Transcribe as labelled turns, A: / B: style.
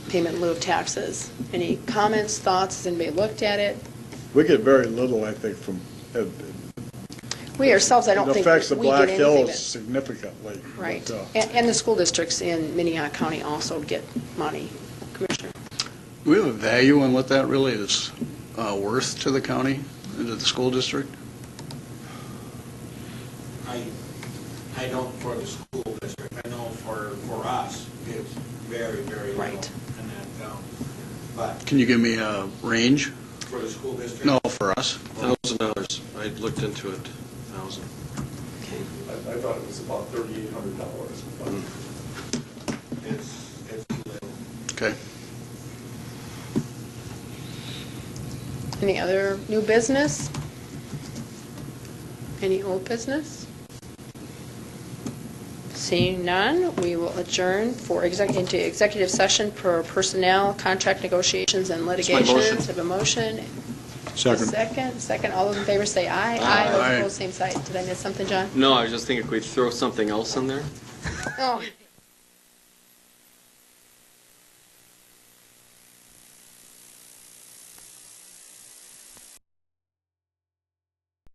A: payment in lieu of taxes. Any comments, thoughts? Has anybody looked at it?
B: We get very little, I think, from, it
A: We ourselves, I don't
B: it
A: think
B: affects the
A: we get
B: Black
A: anything
B: Hills
A: that...
B: significantly.
A: Right.
B: but, uh,
A: And, and the school districts in Minnehaha County also get money. Commissioner?
C: Do we have a value on what that really is uh, worth to the county, and to the school district?
D: I, I don't for the school district, I know for, for us, it's very, very low.
A: Right.
D: And that, um, but
C: Can you give me a range?
D: for the school district. Oh.
C: No, for us.
E: Thousand dollars, I looked into it, thousand.
F: I, I thought it was about thirty-eight hundred dollars, but.
D: It's, it's little.
C: Okay.
A: Any other new business? Any old business? Seeing none, we will adjourn for exec, into executive session for personnel, contract negotiations, and
E: my motion.
A: litigations. Have a motion. Second, second. All those in favor say aye. Aye. Those
C: Aye.
A: opposed, same side. Did I miss something, John?
E: No, I was just thinking, could we throw something else in there?
A: Oh,